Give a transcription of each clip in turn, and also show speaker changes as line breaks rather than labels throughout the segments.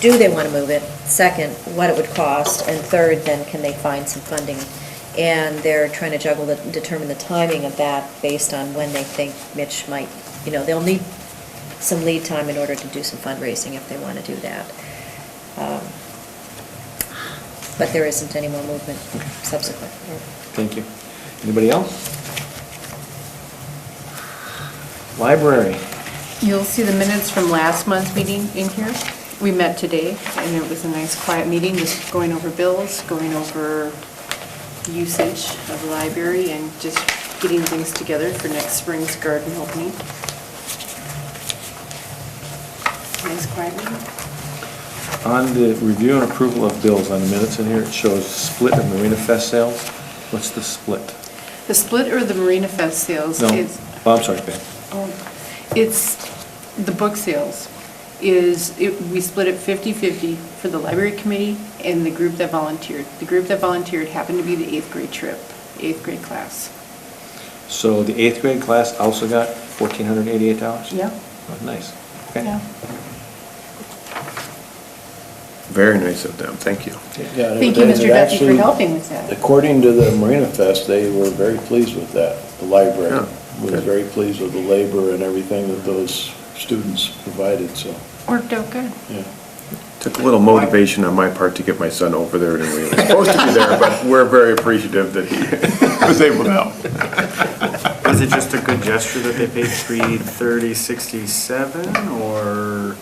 do they want to move it? Second, what it would cost? And third, then can they find some funding? And they're trying to juggle, the determine the timing of that based on when they think Mitch might, you know, they'll need some lead time in order to do some fundraising if they want to do that. Um, But there isn't any more movement subsequent.
Thank you. Anybody else? Library.
You'll see the minutes from last month's meeting in here. We met today, and it was a nice quiet meeting, just going over bills, going over usage of the library, and just getting things together for next spring's garden opening. Nice quiet meeting.
On the review and approval of bills, on the minutes in here, it shows split of Marina Fest sales. What's the split?
The split or the Marina Fest sales
No,
is...
oh, I'm sorry, Ben.
Oh, It's, the book sales is, it- we split it 50/50 for the library committee and the group that volunteered. The group that volunteered happened to be the eighth grade trip, eighth grade class.
So the eighth grade class also got fourteen hundred eighty-eight dollars? Oh,
Yeah.
Nice. Okay.
Yeah.
Very nice of them, thank you.
Yeah, and
Thank you,
it- it
Mr. Duffy, for
actually-
helping with that.
According to the Marina Fest, they were very pleased with that. The library
Yeah,
was
good.
very pleased with the labor and everything that those students provided, so,
Worked out good.
yeah.
Took a little motivation on my part to get my son over there anyway. He was supposed to be there, but we're very appreciative that he was able to help.
Is it just a good gesture that they paid three thirty sixty-seven, or,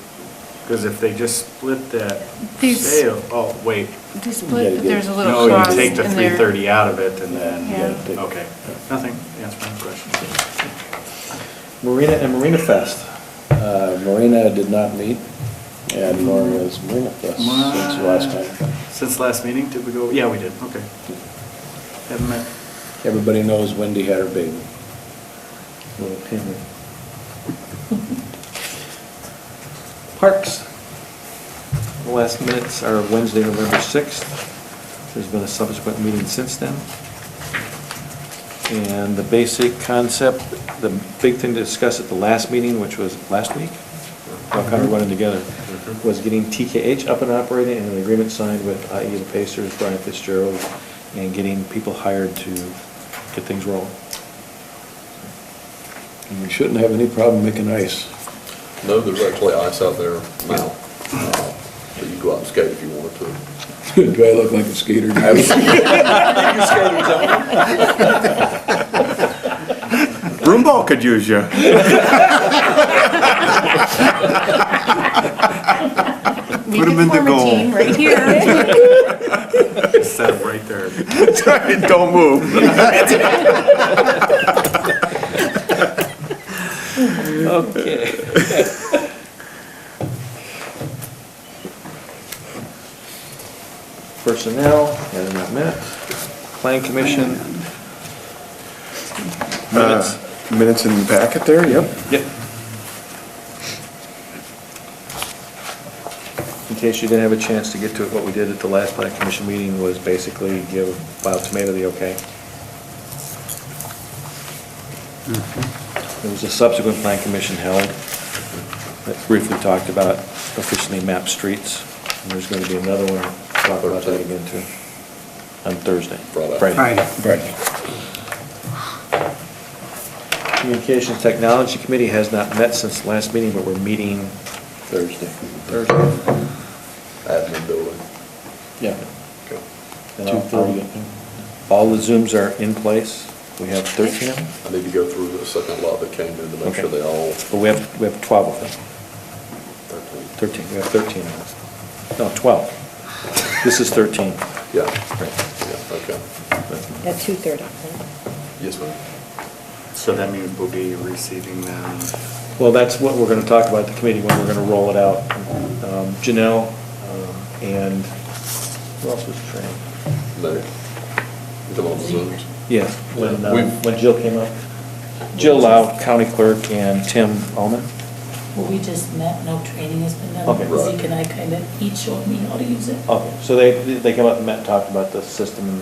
because if they just split that
These-
sale, oh, wait.
They
Yeah,
split,
good.
but there's a little
No,
cost
you
in there.
take the three thirty out of it and
Yeah.
then,
Yeah, take-
okay, nothing, answer my question.
Marina and Marina Fest.
Uh, Marina did not meet, and nor has Marina Fest since the last time.
Since last meeting, did we go, yeah, we did, okay. Haven't met,
Everybody knows Wendy had her baby.
Little pin. Parks. The last minutes are Wednesday, November 6th. There's been a subsequent meeting since then. And the basic concept, the big thing to discuss at the last meeting, which was last week, I'll kind of running together, was getting TKH up and operating and an agreement signed with IE the Pacers, Brian Fitzgerald, and getting people hired to get things rolling.
And we shouldn't have any problem making ice.
No, there's actually ice out there now, uh, so you go out and skate if you wanted to.
Do I look like a skater?
Broom ball could use you.
We
Put 'em
could
in the
form a
goal.
team right here.
set up right there.
Don't move.
Okay. Personnel, had enough minutes. Plan commission.
Uh,
Minutes.
Minutes in the packet there, yep.
Yep. In case you didn't have a chance to get to it, what we did at the last plan commission meeting was basically give Wild Tomato the okay. There was a subsequent plan commission held that briefly talked about officially mapped streets. And there's going to be another one, talk about that again too, on Thursday.
Friday.
Right.
Communications Technology Committee has not met since the last meeting, but we're meeting
Thursday.
Thursday.
Admin building.
Yeah.
Okay.
And I'll-
2:30, I
I'll-
think.
All the Zooms are in place. We have 13 of them,
I need to go through the second lot that came in to make sure
Okay.
they all,
but we have, we have 12 of them.
13,
13, we have 13 of them. No, 12. This is 13.
yeah,
Right.
yeah, okay.
At 2:30, right?
Yes, ma'am.
So that means we'll be receiving them,
Well, that's what we're going to talk about at the committee when we're going to roll it out. Um, Janelle um, and, who else was trained?
Larry, you talking about the Zooms?
Yes, when, uh,
We've-
when Jill came up. Jill Lau, County Clerk, and Tim Alman.
Well, we just met, no training has been done.
Okay.
Zeke and I kind of, he showed me how to use it.
Okay, so they, they came up and met, talked about the system and...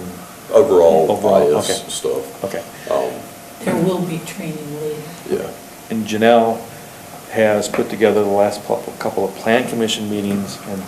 Overall,
Overall,
okay.
IS stuff.
Okay.
Um,
There will be training later.
yeah,
And Janelle has put together the last pl- couple of plan commission meetings and